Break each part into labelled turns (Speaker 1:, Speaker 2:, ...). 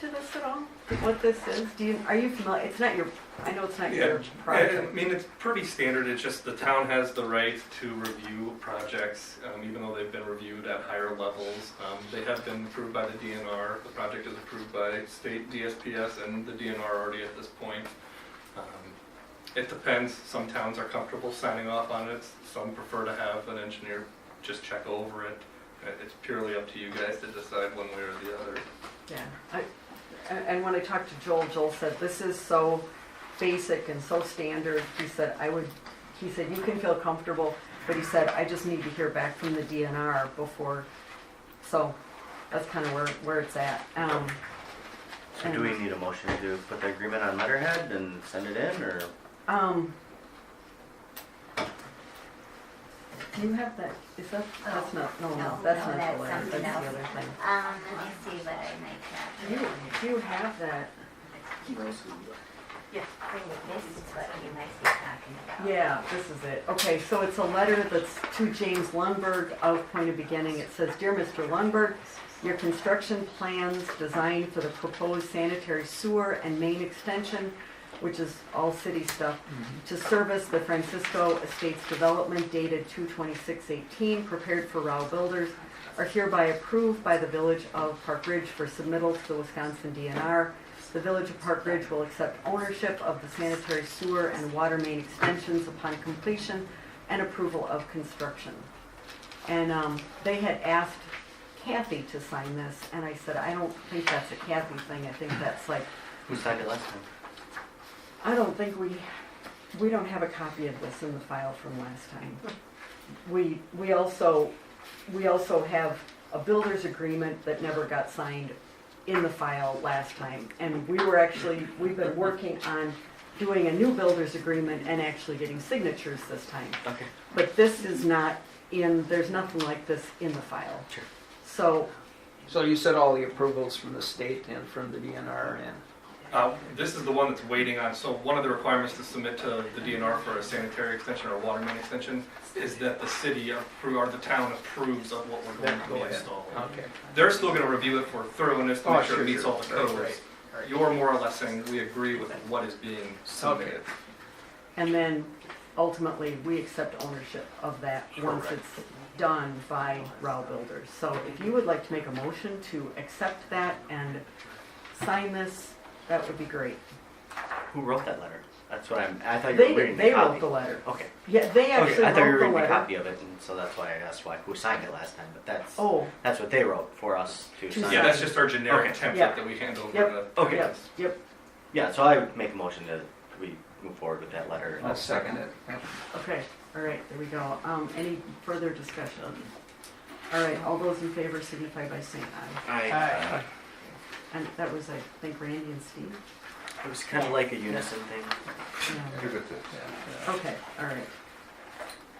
Speaker 1: this at all? What this is? Do you, are you familiar? It's not your, I know it's not your
Speaker 2: Yeah, I
Speaker 1: project.
Speaker 2: mean, it's pretty standard, it's just the town has the right to review projects, um, even though they've been reviewed at higher levels. Um, They have been approved by the DNR, the project is approved by state DSPS and the DNR already at this point. Um, It depends, some towns are comfortable signing off on it, some prefer to have an engineer just check over it. Uh, It's purely up to you guys to decide one way or the other.
Speaker 1: Yeah. I- And and when I talked to Joel, Joel said, this is so basic and so standard. He said, I would, he said, you can feel comfortable, but he said, I just need to hear back from the DNR before. So that's kind of where, where it's at. Um,
Speaker 3: So do we need a motion to put the agreement on letterhead and send it in, or?
Speaker 1: Um. Do you have that, is that, that's not, no, no,
Speaker 4: No,
Speaker 1: that's
Speaker 4: no,
Speaker 1: not
Speaker 4: that's
Speaker 1: the letter, that's
Speaker 4: something
Speaker 1: the
Speaker 4: else.
Speaker 1: other thing.
Speaker 4: Um, let me see what I might have.
Speaker 1: Do you, do you have that?
Speaker 4: This is what you might be talking about.
Speaker 1: Yeah, this is it. Okay, so it's a letter that's to James Lundberg of Point of Beginning. It says, Dear Mr. Lundberg, your construction plans designed for the proposed sanitary sewer and main extension, which is all city stuff, to service the Francisco Estates Development dated 2/26/18, prepared for Rao Builders, are hereby approved by the Village of Park Ridge for submittal to the Wisconsin DNR. The Village of Park Ridge will accept ownership of the sanitary sewer and water main extensions upon completion and approval of construction. And um, they had asked Kathy to sign this, and I said, I don't think that's a Kathy thing, I think that's like,
Speaker 3: Who signed it last time?
Speaker 1: I don't think we, we don't have a copy of this in the file from last time. We, we also, we also have a builder's agreement that never got signed in the file last time. And we were actually, we've been working on doing a new builder's agreement and actually getting signatures this time.
Speaker 3: Okay.
Speaker 1: But this is not in, there's nothing like this in the file.
Speaker 3: Sure.
Speaker 1: So,
Speaker 5: So you said all the approvals from the state and from the DNR and,
Speaker 2: Uh, This is the one that's waiting on, so one of the requirements to submit to the DNR for a sanitary extension or a water main extension is that the city appro- or the town approves of what we're going
Speaker 5: Then
Speaker 2: to
Speaker 5: go
Speaker 2: be
Speaker 5: ahead.
Speaker 2: installing.
Speaker 5: okay.
Speaker 2: They're still gonna review it for thoroughness, to
Speaker 5: Oh,
Speaker 2: make sure
Speaker 5: sure,
Speaker 2: it meets
Speaker 5: sure.
Speaker 2: all the
Speaker 5: Right,
Speaker 2: codes.
Speaker 5: right, right.
Speaker 2: You're more or less saying, we agree with what is being submitted.
Speaker 1: and then ultimately, we accept ownership of that once
Speaker 2: Correct.
Speaker 1: it's done by Rao Builders. So if you would like to make a motion to accept that and sign this, that would be great.
Speaker 3: Who wrote that letter? That's what I'm, I thought you
Speaker 1: They,
Speaker 3: were reading
Speaker 1: they
Speaker 3: the
Speaker 1: wrote
Speaker 3: copy.
Speaker 1: the letter.
Speaker 3: Okay,
Speaker 1: Yeah, they
Speaker 3: okay,
Speaker 1: actually
Speaker 3: I thought you were
Speaker 1: wrote the
Speaker 3: reading a
Speaker 1: letter.
Speaker 3: copy of it, and so that's why I asked why, who signed it last time, but that's,
Speaker 1: Oh,
Speaker 3: that's what they wrote for us to
Speaker 1: To
Speaker 3: sign.
Speaker 2: Yeah, that's just our generic
Speaker 3: Okay.
Speaker 2: template
Speaker 1: Yeah.
Speaker 2: that we hand over
Speaker 1: Yep.
Speaker 2: to.
Speaker 3: Okay.
Speaker 1: yep, yep,
Speaker 3: Yeah, so I would make a motion to, we move forward with that letter.
Speaker 5: I'll second it.
Speaker 1: okay, all right, there we go. Um, any further discussion? All right, all those in favor signify by saying aye.
Speaker 5: Aye.
Speaker 1: And that was, I think, Randy and Steve?
Speaker 3: It was kind of like a unison thing.
Speaker 1: Yeah.
Speaker 6: Give it to.
Speaker 1: Okay, all right.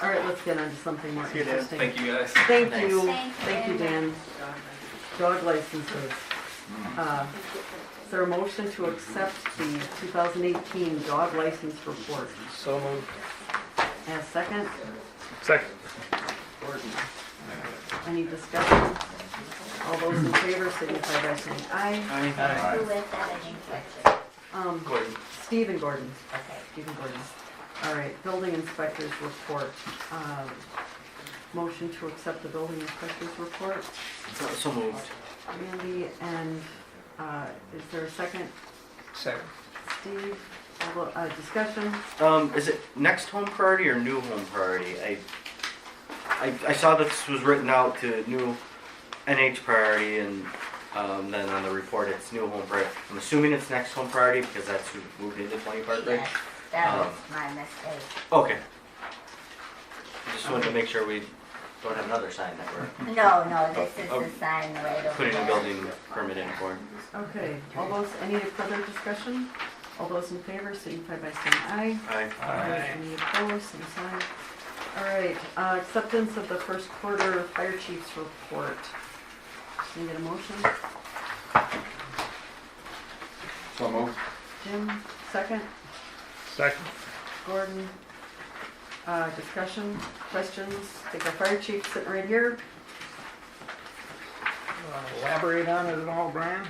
Speaker 1: All right, let's get on to something more
Speaker 3: you, Dan.
Speaker 1: interesting.
Speaker 2: Thank you guys.
Speaker 1: Thank
Speaker 3: Thanks.
Speaker 1: you,
Speaker 4: Thank
Speaker 1: thank you,
Speaker 4: you.
Speaker 1: Dan. Dog licenses. Uh, Is there a motion to accept the 2018 dog license report?
Speaker 5: So moved.
Speaker 1: And a second,
Speaker 2: Second.
Speaker 1: any discussion? All those in favor signify by saying aye.
Speaker 4: Who
Speaker 6: Aye.
Speaker 4: was that? I didn't catch
Speaker 1: Um,
Speaker 3: Gordon.
Speaker 1: Stephen Gordon,
Speaker 4: it. Okay.
Speaker 1: Stephen Gordon. All right, building inspector's report. Um, Motion to accept the building inspector's report.
Speaker 3: So- So moved.
Speaker 1: Randy, and uh, is there a second?
Speaker 5: Second.
Speaker 1: Steve, all the- uh, discussion?
Speaker 3: Um, is it next home priority or new home priority? I, I, I saw this was written out to new NH priority and, um, then on the report, it's new home priority. I'm assuming it's next home priority because that's who moved into twenty Park Ridge?
Speaker 4: Yes, that was
Speaker 3: Um,
Speaker 4: my mistake.
Speaker 3: Okay. Just wanted to make sure we don't have another sign that we're
Speaker 4: No, no, this is
Speaker 3: Oh, oh.
Speaker 4: the sign right over
Speaker 3: putting a
Speaker 4: there.
Speaker 3: building permit in for.
Speaker 1: Okay, all those, any further discussion? All those in favor, signify by saying aye.
Speaker 3: Aye.
Speaker 1: Any opposed, same sign. All right, uh, acceptance of the first quarter fire chief's report. Can you get a motion?
Speaker 6: So moved.
Speaker 1: Jim, second?
Speaker 2: Second.
Speaker 1: Gordon, uh, discussion, questions? I think our fire chief sitting right here.
Speaker 5: Elaborate Uh, on it at all, Brian?